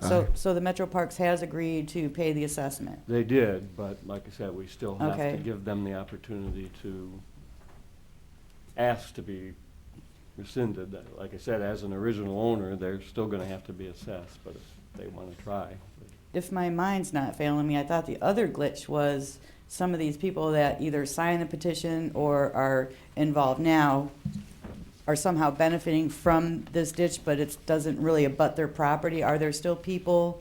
So, so the Metro Parks has agreed to pay the assessment. They did, but like I said, we still have to Okay. give them the opportunity to ask to be rescinded. Like I said, as an original owner, they're still gonna have to be assessed, but if they wanna try. If my mind's not failing me, I thought the other glitch was some of these people that either sign the petition or are involved now are somehow benefiting from this ditch, but it doesn't really abut their property. Are there still people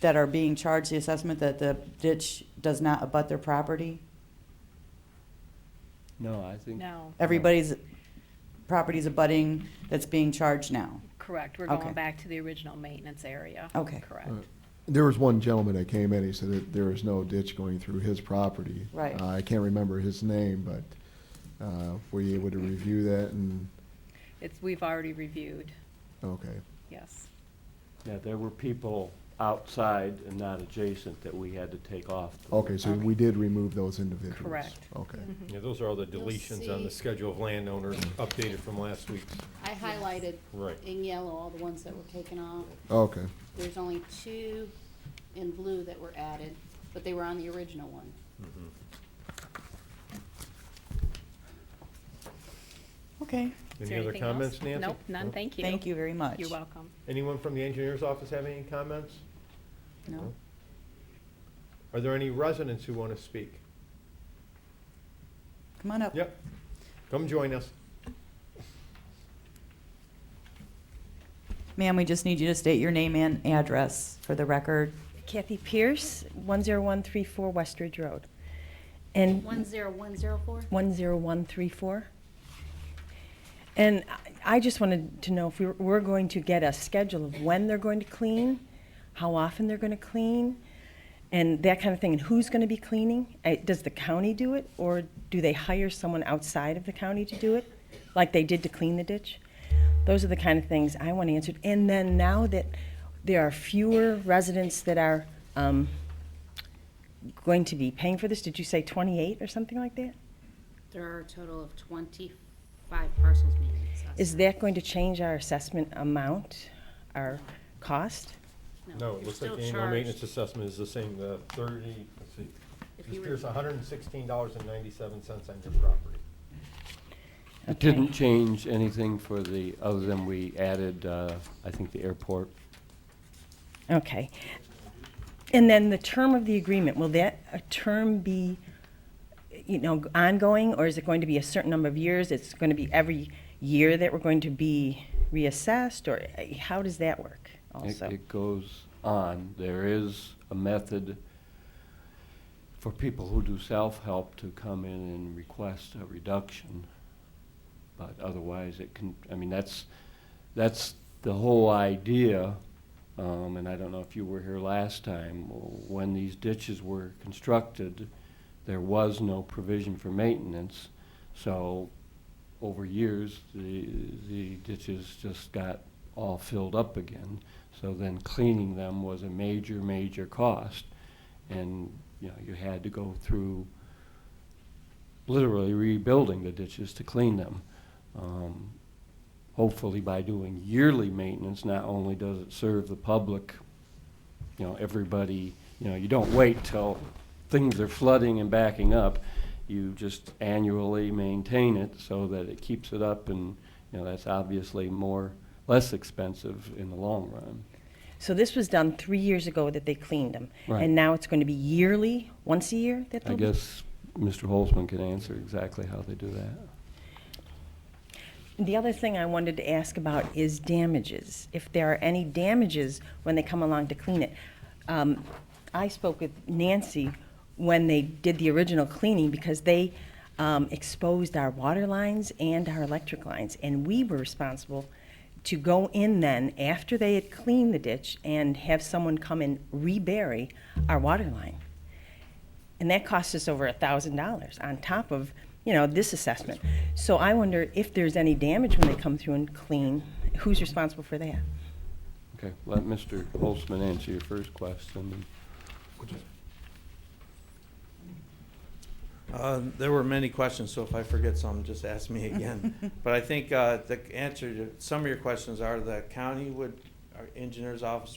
that are being charged the assessment that the ditch does not abut their property? No, I think. No, Everybody's property's abutting that's being charged now. correct. We're Okay. going back to the original maintenance area. Okay. Correct. Right. There was one gentleman that came in, he said that there is no ditch going through his property. Right. Uh, I can't remember his name, but uh, were you able to review that and, It's, we've already reviewed, okay. yes. Yeah, there were people outside and not adjacent that we had to take off. Oh. Okay, so Okay. we did remove those individuals? Correct. Okay. Yeah, those are all the You'll deletions on the see- schedule of landowners updated from last week's. I highlighted Right. in yellow all the ones that were taken off. Okay, There's only two in blue that were added, but they were on the original one. Okay, Is Any there other anything else? comments, Nancy? Nope, none, thank you. thank you very much. You're welcome. Anyone from the engineer's office have any comments? No? Are there any residents who want to speak? Come on up. Yep, come join us. Ma'am, we just need you to state your name and address for the record. Kathy Pierce, 10134 Westridge Road. And One zero one zero four? 10134. And I- I just wanted to know if we were- we're going to get a schedule of when they're going to clean, how often they're going to clean, and that kind of thing, and who's going to be cleaning? Uh, Does the county do it, or do they hire someone outside of the county to do it, like they did to clean the ditch? Those are the kind of things I want answered. And then now that there are fewer residents that are um, going to be paying for this, did you say 28 or something like that? There are a total of twenty-five parcels being assessed. Is that going to change our assessment amount, our cost? No, you're it looks like still the annual maintenance charged. assessment is the same, the thirty, let's see. If Ms. you were- Pierce, hundred and sixteen dollars and ninety-seven cents on your property. It didn't change anything for the, other than we added, uh, I think, the airport. Okay. And then the term of the agreement, will that a term be, you know, ongoing, or is it going to be a certain number of years? It's going to be every year that we're going to be reassessed, or uh, how does that work It- also? It goes on. There is a method for people who do self-help to come in and request a reduction. But otherwise, it can, I mean, that's, that's the whole idea. Um, and I don't know if you were here last time, when these ditches were constructed, there was no provision for maintenance. So over years, the, the ditches just got all filled up again. So then cleaning them was a major, major cost. And, you know, you had to go through literally rebuilding the ditches to clean them. Um, Hopefully by doing yearly maintenance, not only does it serve the public, you know, everybody, you know, you don't wait till things are flooding and backing up. You just annually maintain it so that it keeps it up and, you know, that's obviously more, less expensive in the long run. So this was done three years ago that they cleaned them. Right. And now it's going to be yearly, once a year that I they'll be? guess Mr. Holzman can answer exactly how they do that. The other thing I wanted to ask about is damages. If there are any damages when they come along to clean it. Um, I spoke with Nancy when they did the original cleaning because they um, exposed our water lines and our electric lines. And we were responsible to go in then after they had cleaned the ditch and have someone come and rebury our water line. And that cost us over a thousand dollars on top of, you know, this assessment. So I wonder if there's any damage when they come through and clean, who's responsible for that? Okay, let Mr. Holzman answer your first question. Uh, There were many questions, so if I forget some, just ask me again. But I think uh, the answer to some of your questions are the county would, our engineer's office